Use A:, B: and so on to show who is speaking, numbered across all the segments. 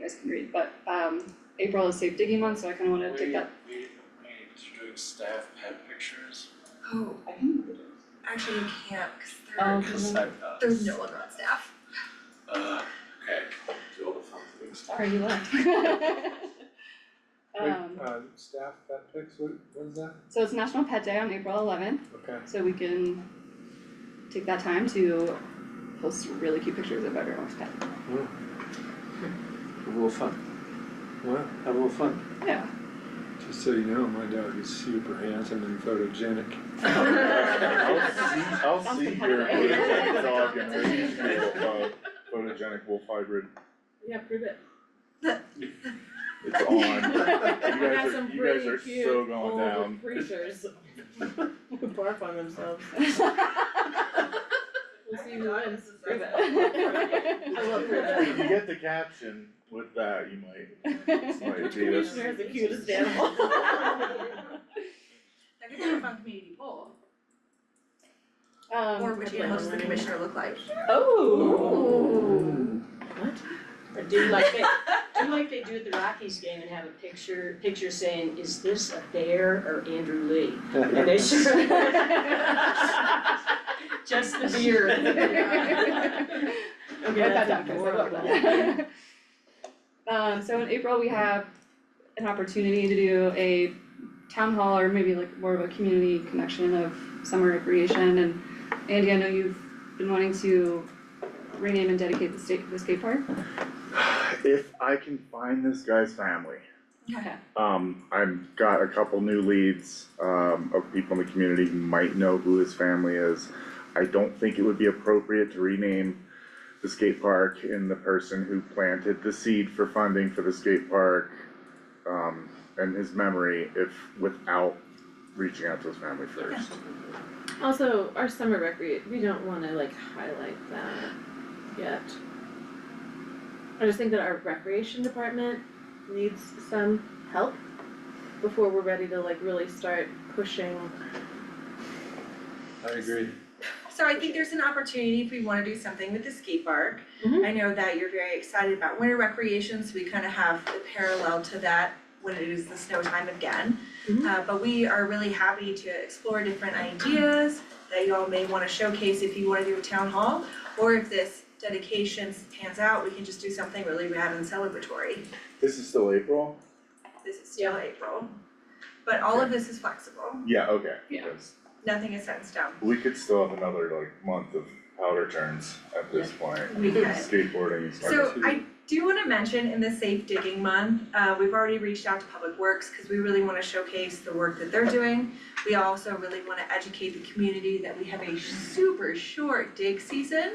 A: guys can read, but um April is safe digging month, so I kinda wanna take that.
B: We, we need to do staff pet pictures.
C: Oh,
A: I can read it.
C: actually you can't, cause
A: Um,
C: there,
A: Mhm.
B: I've got-
C: there's no one on staff.
B: Uh, okay, do all the fun things.
A: Sorry, you left.
D: Wait,
A: Um,
D: uh, staff vet picks, what, what is that?
A: so it's National Pet Day on April eleventh,
D: Okay,
A: so we can take that time to post really cute pictures of everyone's pet.
E: Have a little fun,
D: well,
E: have a little fun.
A: Yeah.
D: just so you know, my dog is super handsome and photogenic.
F: I'll see, I'll
A: Something
F: see your
A: happened.
F: photogenic dog and raise you a uh, photogenic wolf hybrid,
A: Yeah, prove it.
F: it's on. You
G: got
F: guys are,
G: some
F: you guys
G: pretty
F: are
G: cute
F: so going
G: old
F: down.
G: creatures who barf on themselves. We'll see who wins. Prove it. I love prove
F: If you get the caption with that, you might, this might
G: Which
F: be a-
G: commissioner is the cutest animal?
C: That could be a fun community poll,
A: Um,
C: or which animal does the commissioner look like?
G: Oh. What?
H: Or do like they, do like they do at the Rockies game and have a picture, picture saying, is this a bear or Andrew Lee? And they sure. Just the beard.
G: Okay,
A: What about
G: that's
A: doctors, I love
G: adorable.
A: that. Um, so in April, we have an opportunity to do a town hall or maybe like more of a community connection of summer recreation and Andy, I know you've been wanting to rename and dedicate the state, the skate park.
F: If I can find this guy's family.
A: Okay.
F: Um, I've got a couple new leads, um, of people in the community who might know who his family is. I don't think it would be appropriate to rename the skate park in the person who planted the seed for funding for the skate park, um, and his memory if, without reaching out to his family first.
G: Also, our summer recre, we don't wanna like highlight that yet. I just think that our recreation department needs some help before we're ready to like really start pushing
D: I agree.
C: So I think there's an opportunity if we wanna do something with the skate park.
G: Mhm.
A: Mm-hmm.
C: I know that you're very excited about winter recreation, so we kind of have the parallel to that when it is the snow time again.
A: Mm-hmm.
G: Mhm.
C: Uh, but we are really happy to explore different ideas that you all may wanna showcase if you wanna do a town hall. Or if this dedication pans out, we can just do something really rad and celebratory.
F: This is still April?
C: This is still April. But all of this is flexible,
F: Yeah, okay.
A: Yeah.
F: Yes.
C: nothing is set in stone.
F: We could still have another like month of powder turns at this point.
C: We could.
F: Skateboarding is.
C: So
D: Too.
C: I do wanna mention in the Safe Digging Month, uh, we've already reached out to Public Works, cause we really wanna showcase the work that they're doing. We also really wanna educate the community that we have a super short dig season.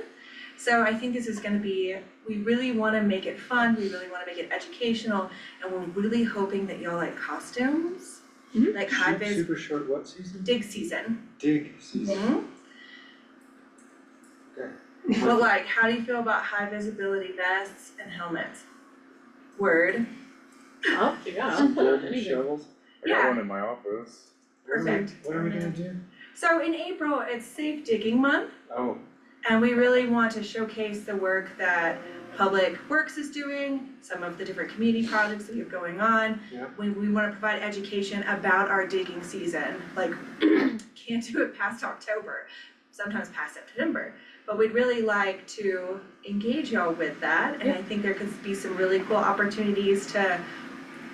C: So I think this is gonna be, we really wanna make it fun, we really wanna make it educational, and we're really hoping that y'all like costumes.
G: Mhm.
C: Like high
D: Super-
C: vis
D: Super short what season?
C: dig season.
D: Dig season.
C: Mm-hmm. But like, how do you feel about high visibility vests and helmets? Word,
G: up, yeah,
D: Some golden
G: anything.
D: shovels.
F: I got
C: yeah.
F: one in my office.
C: perfect.
D: What are we gonna do?
C: So in April, it's Safe Digging Month,
D: Oh,
C: and we really want to showcase the work that Public Works is doing, some of the different community projects that we have going on.
D: Yeah.
C: We, we wanna provide education about our digging season, like, can't do it past October, sometimes past September. But we'd really like to engage y'all with that, and I think there could be some really cool opportunities to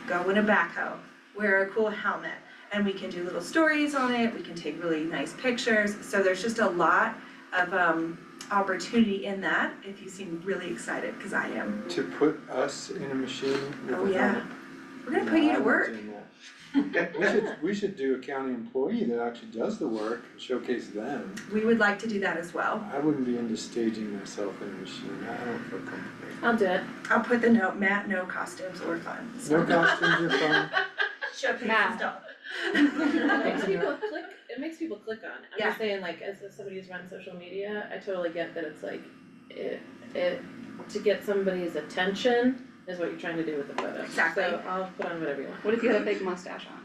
C: go in a backhoe, wear a cool helmet, and we can do little stories on it, we can take really nice pictures, so there's just a lot of um opportunity in that, if you seem really excited, cause I am.
D: to put us in a machine with
C: Oh,
D: a
C: yeah.
D: helmet.
C: We're gonna put you
D: No,
C: to
D: I
C: work.
D: wouldn't do that. We should, we should do a county employee that actually does the work and showcase them.
C: We would like to do that as well.
D: I wouldn't be into staging myself in a machine, I don't feel comfortable.
G: I'll do it.
C: I'll put the note, Matt, no costumes or fun.
D: No costumes are fun.
C: Showcase
A: Matt.
C: stuff.
G: It makes people click, it makes people click on, I'm
C: Yeah.
G: just saying, like, as as somebody who's run social media, I totally get that it's like, it, it, to get somebody's attention is what you're trying to do with the photo.
C: Exactly.
G: So I'll put on whatever you want.
A: What if you had a fake mustache on?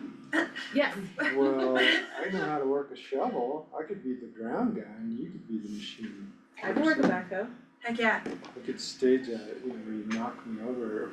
G: Yes,
D: Well, I know how to work a shovel, I could be the ground guy and you could be the machine.
G: I can work a backhoe.
C: Heck yeah.
D: I could stage a, you know, where you knock me over